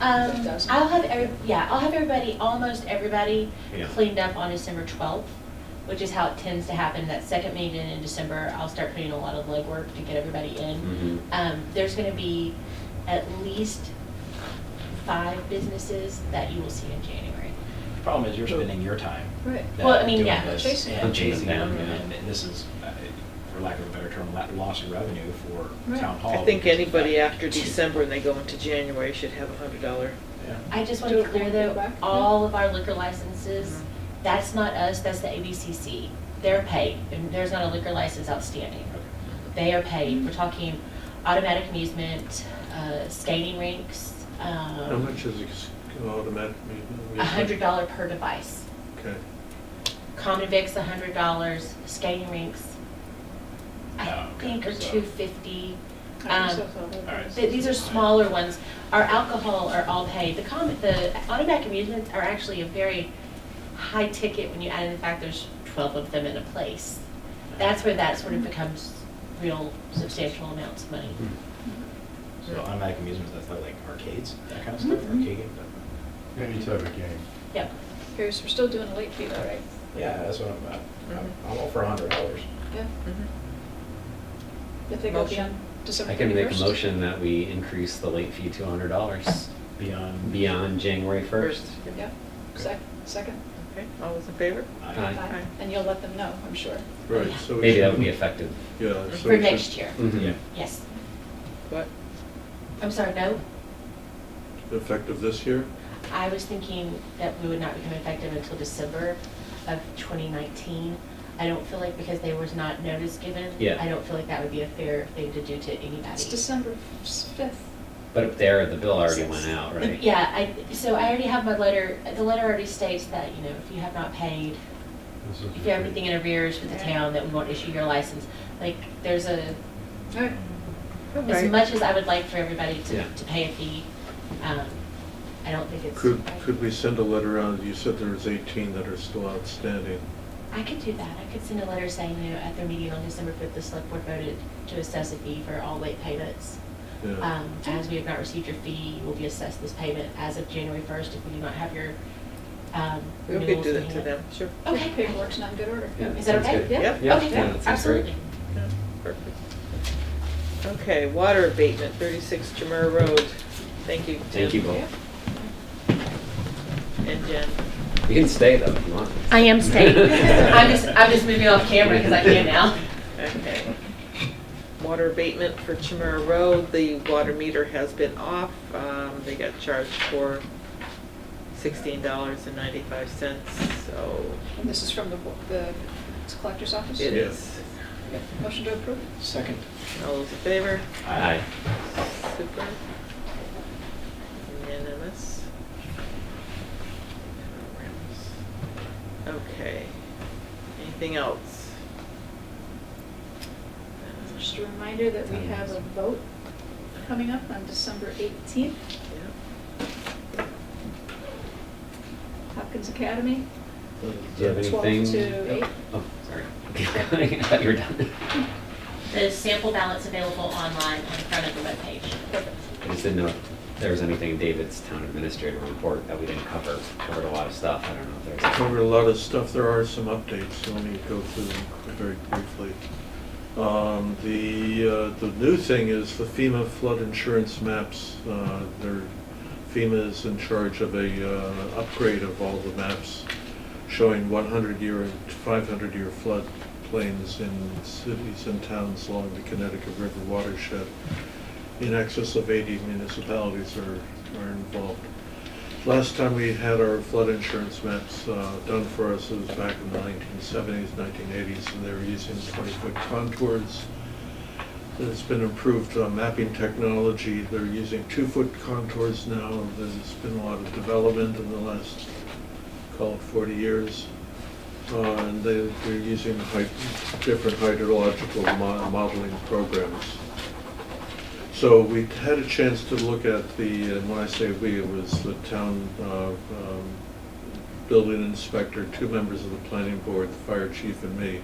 Um, That doesn't- I'll have every, yeah, I'll have everybody, almost everybody Yeah. cleaned up on December twelfth, which is how it tends to happen, that second meeting in December, I'll start putting a lot of legwork to get everybody in. Mhm. Um, there's gonna be at least five businesses that you will see in January. The problem is you're spending your time. Right. that- Well, I mean, doing yeah. this Chasing And them. chasing them, Yeah. and this is, uh, for lack of a better term, la- loss of revenue for Right. town hall. I think because- anybody after December and they go into January should have a hundred dollar. Yeah. I just want to be clear Do it though, back? all of our liquor licenses, that's not us, that's the ABCC. They're paid, and there's not a liquor license outstanding. They are paid. We're talking automatic amusement, uh, skating rinks, How um, much is ex- automatic amusement? a hundred dollar per device. Okay. Common Vic's a hundred dollars, skating rinks, Oh, I okay. think are So- two fifty. I think Um, so, so. All right. Th- These are smaller ones. Our alcohol are all paid. The com the automatic amusements are actually a very high ticket when you add in the fact there's twelve of them in a place. That's where that sort of becomes real substantial amounts of money. So automatic amusements, that's like arcades, that kind of stuff, Mm-hmm. arcade game, but, Any type of game. Yep. Here's, we're still doing a late fee though, right? yeah, that's what I'm, about. I'm, Mm-hmm. I'm all for a hundred dollars. Yeah, if they go Motion. beyond December I can make a 31st. motion that we increase the late fee to hundred dollars Beyond. beyond January first. Yeah, sec, second, Okay, all those in favor? Aye. Aye. and you'll let them know, I'm sure. Right, so. we Maybe that should- Mm-hmm. would be effective. Yeah. so For we should- next year, Mhm. Mm-hmm. Yeah. yes. What? I'm sorry, no? Effective this year? I was thinking that we would not become effective until December of 2019. I don't feel like, because there was not notice given. Yeah. I don't feel like that would be a fair thing to do to anybody. It's December fifth. But up there, the bill already went out, right? Yeah, I, so I already have my letter, the letter already states that, you know, if you have not paid, This is- if you have anything in arrears with the town, that we won't issue your license. Like, there's a, All right, as much as I would like for everybody Yeah. to, to pay a fee, um, I don't think it's. Could, could we send a letter out? You said there was 18 that are still outstanding. I could do that. I could send a letter saying, you know, at their meeting on December fifth, the select board voted to assess a fee for all late payments. Yeah. Um, as we have not received your fee, you will be assessed this payment as of January first if we do not have your, um, We could renewals do in that to hand." them, sure. Okay. paperwork's not in good order. Yeah, Is that sounds okay? good. Yeah. Yep. Yeah, Okay, yeah, that sounds great. absolutely. Yeah, Perfect. Okay, water abatement, thirty-six Jamur Road. Thank you, Tim. Thank you Yeah. both. And Jen. You can stay though if you want. I am staying. I'm just, I'm just moving off camera because I can now. Okay. Water abatement for Chimera Road, the water meter has been off. Um, They got charged for sixteen dollars and ninety-five cents, so And this is from the, the it's collector's office? it is. Motion to approve? Second. All those in favor? Aye. Super. Unanimous. Okay. Anything else? Just a reminder that we have a vote coming up on December eighteenth, Yep. Hopkins Academy, Uh, Do you have Twelve anything? to eight. Oh, sorry. I thought you were done. The sample ballot's available online on the front of the webpage. I just didn't know if there was anything in David's town administrator report that we didn't cover. Covered a lot of stuff. I don't know if there's. Covered a lot of stuff. There are some updates, so let me go through them qu- very briefly. Um, The, uh, the new thing is the FEMA flood insurance maps. Uh, They're, FEMA is in charge of a uh, upgrade of all the maps showing 100-year and 500-year flood plains in cities and towns along the Connecticut River watershed. In excess of 80 municipalities are, are involved. Last time we had our flood insurance maps uh, done for us, it was back in the 1970s, 1980s, and they were using 20-foot contours. It's been improved uh, mapping technology, they're using two-foot contours now, there's been a lot of development in the last, call it 40 years. Uh, And they, they're using hy- different hydrological mo- modeling programs. So we had a chance to look at the, and when I say we, it was the town uh, um, building inspector, two members of the planning board, the fire chief and me,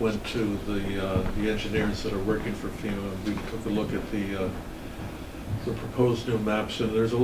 went to the, uh, the engineers that are working for FEMA, and we took a look at the uh, the proposed new maps, and there's a